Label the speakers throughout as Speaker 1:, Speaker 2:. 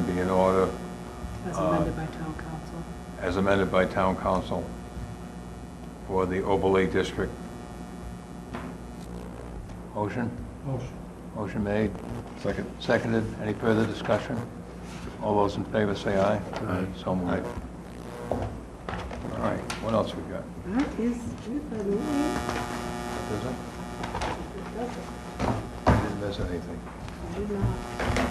Speaker 1: meeting in order
Speaker 2: As
Speaker 1: Uh,
Speaker 2: amended by town council.
Speaker 1: as amended by town council for the overlay district. Motion?
Speaker 3: Motion.
Speaker 1: Motion made,
Speaker 4: Second.
Speaker 1: seconded. Any further discussion? All those in favor say aye. Aye. So moved. All right, what else we got?
Speaker 2: That is it, by the way.
Speaker 1: Is it?
Speaker 2: It does it.
Speaker 1: I Didn't miss anything.
Speaker 2: I did not-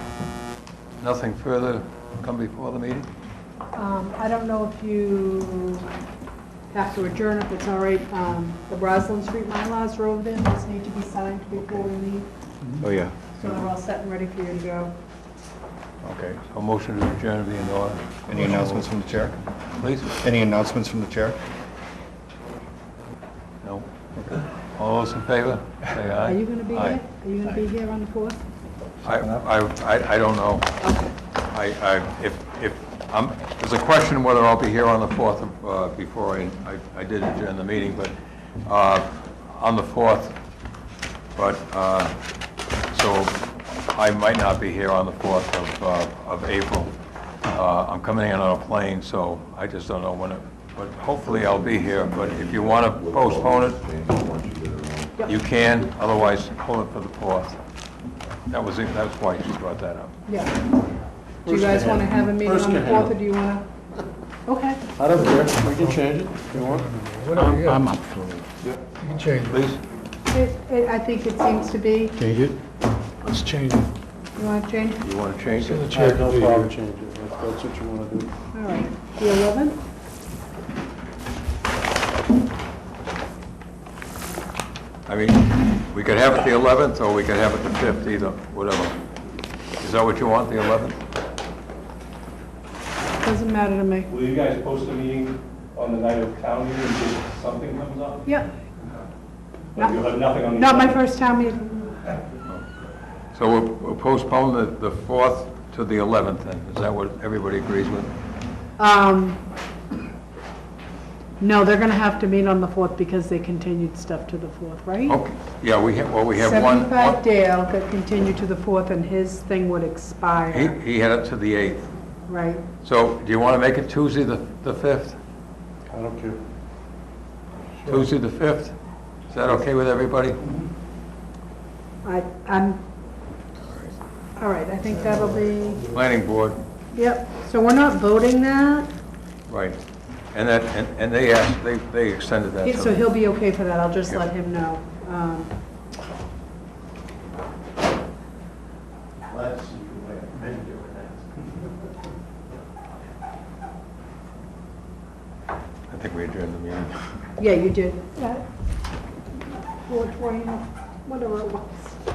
Speaker 1: Nothing further come before the meeting?
Speaker 2: Um, I don't know if you have to adjourn, if it's all right, um, the Roslyn Street MyLars rolled in, those need to be signed before we leave,
Speaker 1: Oh, yeah.
Speaker 2: so they're all set and ready for you to go.
Speaker 1: Okay, so motion to adjourn be in order.
Speaker 4: Any announcements from the chair?
Speaker 1: Please?
Speaker 4: Any announcements from the chair?
Speaker 1: No. All those in favor, say aye.
Speaker 2: Are you gonna be here?
Speaker 1: Aye.
Speaker 2: Are you gonna be here on the fourth?
Speaker 1: I, I, I- I don't know.
Speaker 2: Okay.
Speaker 1: I, I, if, if, um, there's a question whether I'll be here on the 4th of, uh, before I, I- I did adjourn the meeting, but, uh, on the 4th, but, uh, so I might not be here on the 4th of, uh, of April. Uh, I'm coming in on a plane, so I just don't know when it, but hopefully I'll be here, but if you want to postpone it, you can, otherwise hold it for the 4th. That was, it. that's why she brought that up.
Speaker 2: Yeah. Do you guys wanna have a meeting on the fourth, or do you wanna? Okay.
Speaker 3: I don't care, we can change it if you want.
Speaker 5: I'm up for it.
Speaker 1: Please?
Speaker 2: It, it, I think it seems to be,
Speaker 5: Change it?
Speaker 6: Let's change it.
Speaker 2: you wanna change?
Speaker 1: You want to change
Speaker 6: The
Speaker 1: it?
Speaker 3: I
Speaker 6: chair
Speaker 3: have
Speaker 6: can
Speaker 3: no
Speaker 6: be
Speaker 3: problem
Speaker 6: here.
Speaker 3: changing it, if that's what you want to do.
Speaker 2: All right, the eleventh?
Speaker 1: I mean, we could have it the 11th, or we could have it the 5th, either, whatever. Is that what you want, the 11th?
Speaker 2: Doesn't matter to me.
Speaker 7: Will you guys post a meeting on the night of town meeting in case something comes up?
Speaker 2: Yep,
Speaker 7: But you'll have nothing on the...
Speaker 2: not my first time meeting.
Speaker 1: So we'll- we'll postpone the the 4th to the 11th, then? Is that what everybody agrees with?
Speaker 2: Um, no, they're gonna have to meet on the fourth because they continued stuff to the fourth, right?
Speaker 1: Okay, yeah, we have, well, we have one...
Speaker 2: Seventy-five
Speaker 1: one-
Speaker 2: Dale got continued to the fourth and his thing would
Speaker 1: He
Speaker 2: expire,
Speaker 1: he had it to the 8th.
Speaker 2: right?
Speaker 1: So do you want to make it Tuesday, the the 5th?
Speaker 3: I don't care.
Speaker 1: Tuesday, the 5th? Is that okay with everybody?
Speaker 2: I, I'm, all right, I think that'll be,
Speaker 1: Planning board,
Speaker 2: yep, so we're not voting that?
Speaker 1: right. And that, and and they asked, they they extended that
Speaker 2: Yeah,
Speaker 1: to...
Speaker 2: So he'll be okay for that, I'll just let him know. Um,
Speaker 1: I think we adjourned the meeting.
Speaker 2: Yeah, you did. Four twenty, whatever it was.